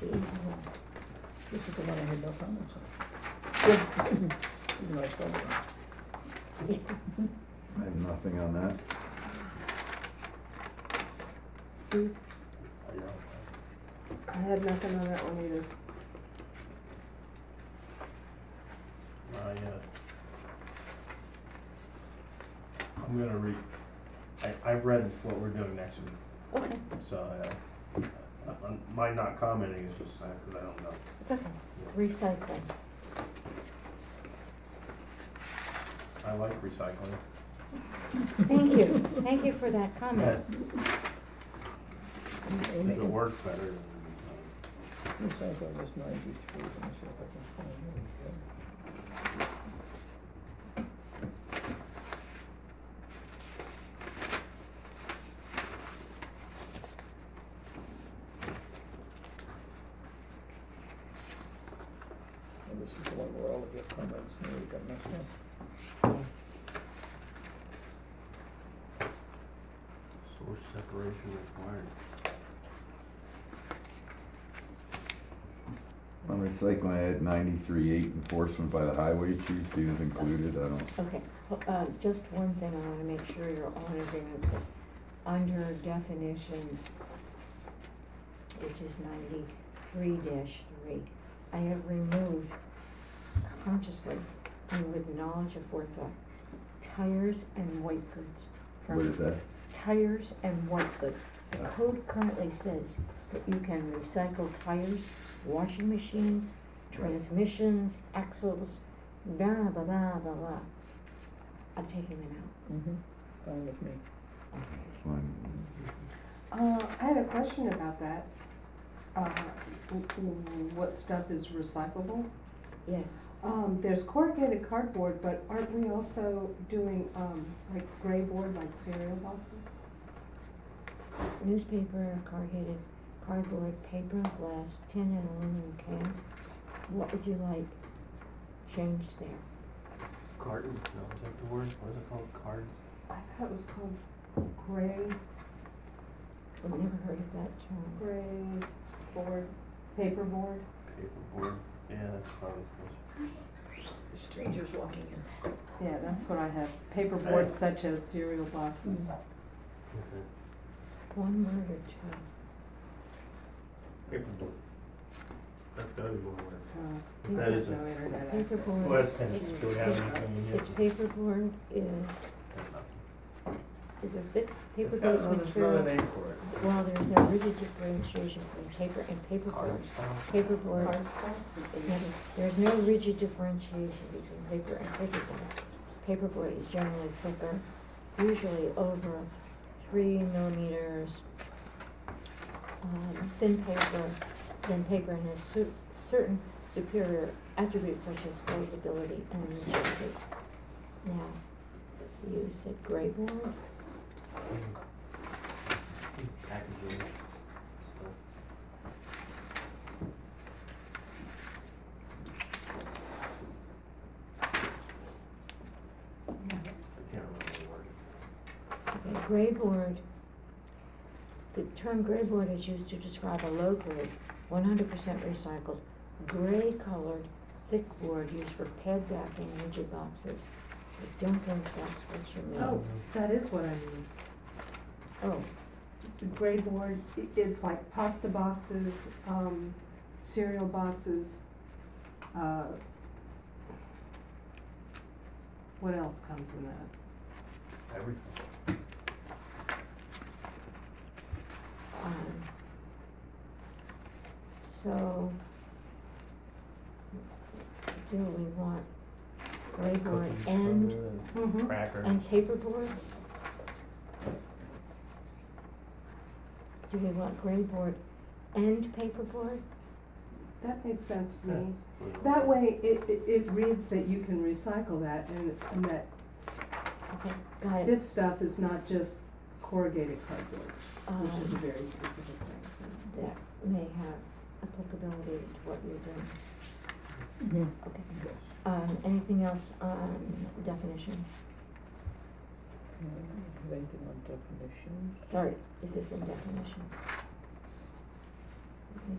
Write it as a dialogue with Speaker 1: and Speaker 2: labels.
Speaker 1: the easy one. This is the one I had no comments on. Even though I spelled it wrong.
Speaker 2: I have nothing on that.
Speaker 3: Steve? I had nothing on that one either.
Speaker 4: I, uh, I'm gonna read, I, I read what we're doing next week,
Speaker 3: Okay,
Speaker 4: so, uh, I- I'm- my not commenting is just, uh, cause I don't know.
Speaker 3: it's okay. Recycling.
Speaker 4: I like recycling.
Speaker 3: Thank you, thank you for that comment.
Speaker 4: If
Speaker 1: Amy,
Speaker 4: it works better, um, then,
Speaker 1: this I thought was ninety-three, let me see if I can find it. And this is the one where all of your comments nearly got messed up.
Speaker 4: source separation required.
Speaker 2: On recycling, I had ninety-three eight enforcement by the highway chief, he was included, I don't,
Speaker 3: Okay, ho- uh, just one thing I wanna make sure you're all in agreement with. Under definitions, which is ninety-three three, I have removed consciously and with knowledge of forethought, tires and white goods from.
Speaker 2: what is that?
Speaker 3: tires and white goods. The
Speaker 2: Yeah.
Speaker 3: code currently says that you can recycle tires, washing machines, transmissions, axles, blah, blah, blah, blah, blah. I'm taking them out.
Speaker 1: Mm-hmm. Fine with me.
Speaker 3: Okay.
Speaker 2: Fine.
Speaker 5: Uh, I had a question about that. Uh, w- w- what stuff is recyclable?
Speaker 3: Yes,
Speaker 5: Um, there's corrugated cardboard, but aren't we also doing, um, like gray board, like cereal boxes?
Speaker 3: newspaper, corrugated cardboard, paper, glass, tin and aluminum can. What would you like changed there?
Speaker 4: Carton, no, is that the word, what is it called, card?
Speaker 5: I thought it was called gray,
Speaker 3: I've never heard of that term.
Speaker 5: gray board, paperboard.
Speaker 4: Paperboard, yeah, that's probably close.
Speaker 1: The stranger's walking in.
Speaker 5: Yeah, that's what I have, paperboard such as cereal boxes.
Speaker 4: Okay.
Speaker 3: One word or two.
Speaker 4: Paperboard. That's gotta be one word.
Speaker 5: Uh,
Speaker 3: That
Speaker 5: we have
Speaker 4: is a-
Speaker 5: no internet access.
Speaker 3: Paperboard.
Speaker 4: Well, that's kind
Speaker 3: it's
Speaker 4: of, do we have anything in
Speaker 3: It's paperboard is, is a thick
Speaker 4: It's
Speaker 3: paper-based
Speaker 4: got-
Speaker 3: material.
Speaker 4: no, there's not a name for it.
Speaker 3: Well, there's no rigid differentiation between paper and paperboard.
Speaker 4: Card style?
Speaker 3: Paperboard,
Speaker 5: Cardstock?
Speaker 3: there's no rigid differentiation between paper and paperboard. Paperboard is generally thicker, usually over three millimeters, um, thin paper, than paper and has su- certain superior attributes such as foldability and rigidity. Now, you said gray board,
Speaker 4: Packaging. So, I can't remember the word.
Speaker 3: Okay, gray board, the term gray board is used to describe a low-grade, one hundred percent recycled, gray-colored, thick board used for pad backing rigid boxes. I don't think that's what you mean.
Speaker 5: Oh, that is what I mean.
Speaker 3: Oh,
Speaker 5: The gray board, i- it's like pasta boxes, um, cereal boxes, uh, what else comes in that?
Speaker 4: Everything.
Speaker 3: um, so, do we want gray board
Speaker 4: Cookies,
Speaker 3: and,
Speaker 4: butter, and
Speaker 5: Mm-hmm.
Speaker 4: Cracker.
Speaker 3: and paperboard? Do we want gray board and paperboard?
Speaker 5: That makes sense to me.
Speaker 4: Yeah.
Speaker 5: That way, it, it, it reads that you can recycle that and, and that
Speaker 3: Okay, got it.
Speaker 5: stiff stuff is not just corrugated cardboard,
Speaker 3: Um,
Speaker 5: which is a very specific thing.
Speaker 3: That may have applicability to what you're doing.
Speaker 1: Mm-hmm.
Speaker 3: Okay.
Speaker 1: Yes.
Speaker 3: Um, anything else on definitions?
Speaker 1: Uh, Have anything on definitions?
Speaker 3: Sorry, is this in definitions? Let me